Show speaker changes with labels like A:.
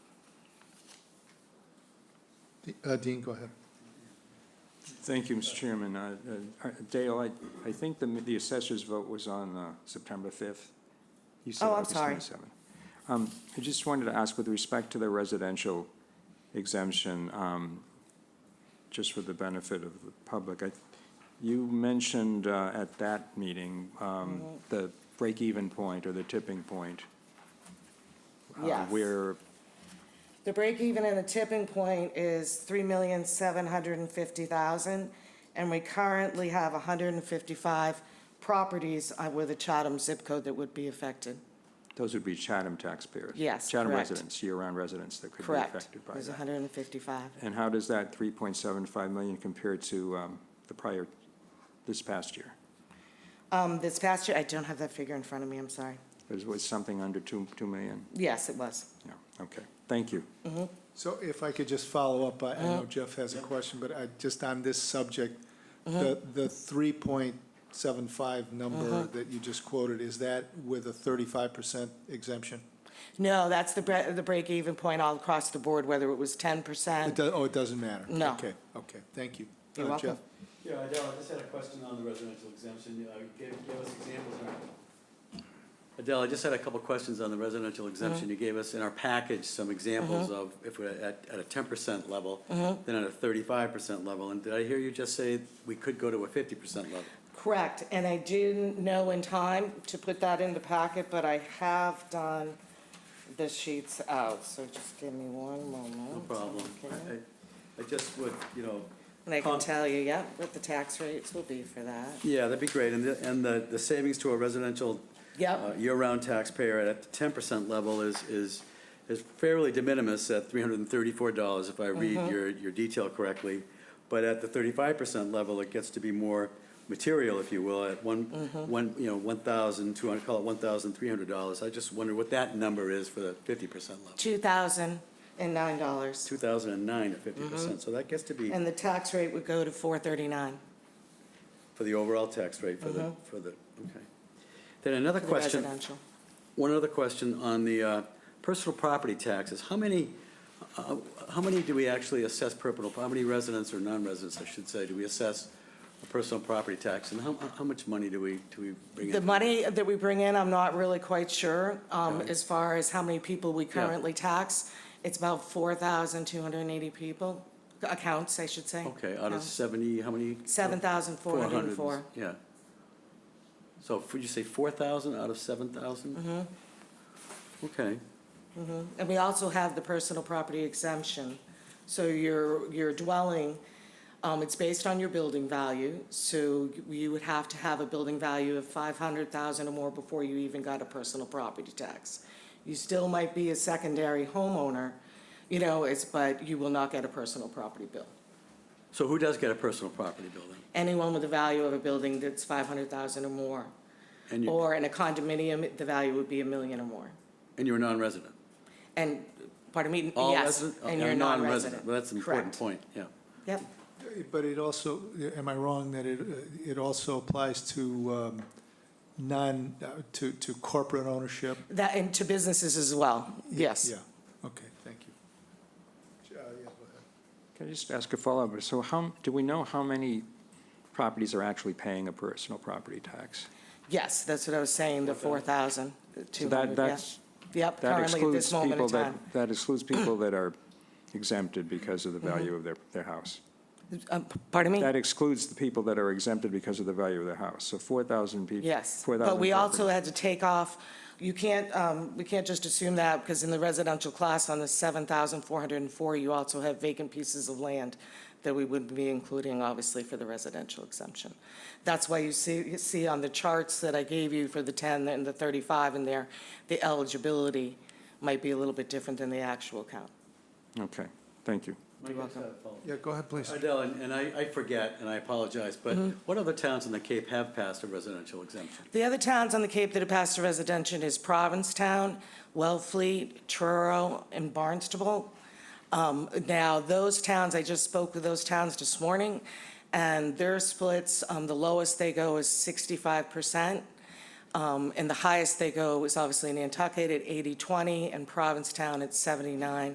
A: D- uh, Dean, go ahead.
B: Thank you, Mr. Chairman. Uh, uh, Dale, I, I think the, the assessor's vote was on uh, September 5th. You said
C: Oh, I'm
B: August
C: sorry.
B: 27th. Um, I just wanted to ask with respect to the residential exemption, um, just for the benefit of the public, I, you mentioned uh, at that meeting,
C: Mm-hmm.
B: um, the break-even point or the tipping point. uh,
C: Yes.
B: Where,
C: The break even and the tipping point is three million, seven hundred and fifty thousand, and we currently have hundred and fifty-five properties uh, with a Chatham zip code that would be affected.
B: those would be Chatham taxpayers.
C: Yes,
B: Chatham
C: correct.
B: residents, year-round residents that could be
C: Correct.
B: affected by that.
C: There's hundred and fifty-five.
B: And how does that 3.75 million compare to um, the prior, this past year?
C: Um, this past year, I don't have that figure in front of me, I'm sorry.
B: It was something under 2, 2 million?
C: Yes, it was.
B: Yeah, okay, thank you.
A: So if I could just follow up, I I
C: Uh-huh.
A: know Jeff has a question, but I, just on this subject,
C: Uh-huh.
A: the, the three point seven five
C: Uh-huh.
A: number that you just quoted, is that with a thirty-five percent exemption?
C: No, that's the bre, the break even point all across the board, whether it was ten
A: It
C: percent.
A: does, oh, it doesn't matter?
C: No.
A: Okay, okay, thank you.
C: You're
A: Uh,
C: welcome.
A: Jeff?
D: Yeah, I know, I just had a question on the residential exemption, uh, gave, gave us examples in our. Adele, I just had a couple questions on the residential exemption, you gave us in our package some examples of if we're at, at a ten percent level, then at a thirty-five percent level, and did I hear you just say we could go to a fifty percent level?
C: Correct, and I didn't know in time to put that in the packet, but I have done the sheets out, so just give me one moment.
D: No problem, I,
C: Oh. okay?
D: I- I just would, you know,
C: And I can
D: Com-
C: tell you, yep, what the tax rates will be for that.
D: yeah, that'd be great, and the, and the, the savings to a residential uh,
C: Yep,
D: year-round taxpayer at the ten percent level is, is, is fairly de minimis at three hundred and thirty-four dollars, if I read your, your detail correctly. But at the thirty-five percent level, it gets to be more material, if you will, at one, one, you know, one thousand, two hundred, call it one thousand three hundred dollars. I just wonder what that number is for the fifty percent level.
C: two thousand and nine dollars.
D: Two thousand and nine at fifty percent, so that gets to be
C: And the tax rate would go to four thirty-nine.
D: for the overall tax rate for the, for the, okay. Then another question.
C: Residential.
D: One other question on the uh, personal property taxes. How many, uh, how many do we actually assess personal, how many residents or non-residents, I should say, do we assess a personal property tax? And how, how much money do we, do we bring in?
C: The money that we bring in, I'm not really quite sure, um,
D: Okay.
C: as far as how many people we currently tax. It's about four thousand two hundred and eighty people, accounts, I should say.
D: Okay, out of
C: Accounts.
D: 70, how many?
C: Seven thousand four hundred and four.
D: 400. Yeah. So would you say 4,000 out of 7,000?
C: Mm-hmm.
D: Okay,
C: And we also have the personal property exemption. So your, your dwelling, um, it's based on your building value. So you would have to have a building value of five hundred thousand or more before you even got a personal property tax. You still might be a secondary homeowner, you know, it's, but you will not get a personal property bill.
D: so who does get a personal property building?
C: Anyone with a value of a building that's five hundred thousand or more,
D: And you,
C: or in a condominium, the value would be a million or more.
D: and you're a non-resident?
C: And, pardon me,
D: All
C: yes,
D: resident-
C: and you're a non-resident.
D: Well, that's an important
C: Correct.
D: point, yeah.
C: Yep.
A: But it also, am I wrong that it, uh, it also applies to, um, non, uh, to, to corporate ownership?
C: That, and to businesses as well, yes.
A: Yeah, okay, thank you. Uh, yeah, go ahead.
B: Can I just ask a follow-up? So how, do we know how many properties are actually paying a personal property tax?
C: Yes, that's what I was saying, the four thousand,
B: So
C: two
B: that
C: hundred, yeah.
B: that's
C: Yep,
B: That
C: currently at
B: excludes
C: this moment in
B: people
C: time.
B: that, that excludes people that are exempted because
C: Mm-hmm.
B: of the value of their, their house.
C: Um, p- Pardon me?
B: That excludes the people that are exempted because of the value of their house. So 4,000 people.
C: Yes, but we also had to take off, you can't, um, we can't just assume that, because in the residential class on the seven thousand four hundred and four, you also have vacant pieces of land that we wouldn't be including, obviously, for the residential exemption. That's why you see, you see on the charts that I gave you for the ten and the thirty-five in there, the eligibility might be a little bit different than the actual count.
B: Okay, thank you.
D: You're welcome.
A: Yeah, go ahead, please.
D: uh, Adele, and and I, I forget, and I apologize, but what other towns in the Cape have passed a residential exemption?
C: The other towns on the Cape that have passed a residential is Provincetown, Wellfleet, Truro, and Barnstable. Um, Now, those towns, I just spoke with those towns this morning, and their splits, um, the lowest they go is 65%, um, and the highest they go is obviously Nantucket at 80/20, and Provincetown at 79,